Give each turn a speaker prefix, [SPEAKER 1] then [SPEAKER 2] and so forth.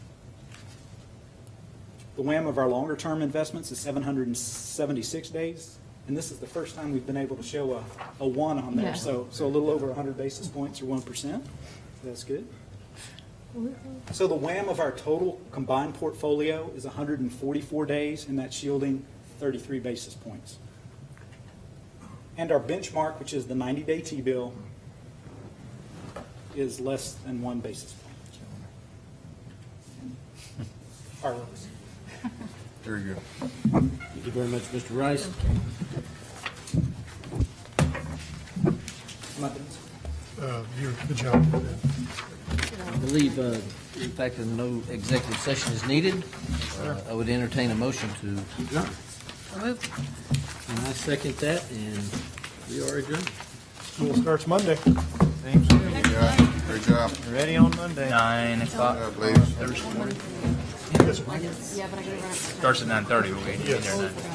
[SPEAKER 1] The WAM of our longer-term investments is 776 days, and this is the first time we've been able to show a, a one on
[SPEAKER 2] Yeah.
[SPEAKER 1] there. So, so a little over 100 basis points or 1%. That's good. So the WAM of our total combined portfolio is 144 days, and that's yielding 33 basis points. And our benchmark, which is the 90-day T-bill, is less than one basis point. Our lowest.
[SPEAKER 3] Very good.
[SPEAKER 4] Thank you very much, Mr. Rice.
[SPEAKER 1] My benchmark.
[SPEAKER 5] Uh, You're, good job.
[SPEAKER 4] I believe, uh, in fact, that no executive session is needed. Uh, I would entertain a motion to adjourn. And I second that, and we are adjourned.
[SPEAKER 5] School starts Monday.
[SPEAKER 3] Great job.
[SPEAKER 6] Ready on Monday.
[SPEAKER 7] Nine o'clock.
[SPEAKER 3] Good job, ladies.
[SPEAKER 5] Yes,
[SPEAKER 2] Yeah, but I gotta run.
[SPEAKER 7] Starts at nine thirty. We'll be in there at
[SPEAKER 5] Yes.
[SPEAKER 7] nine.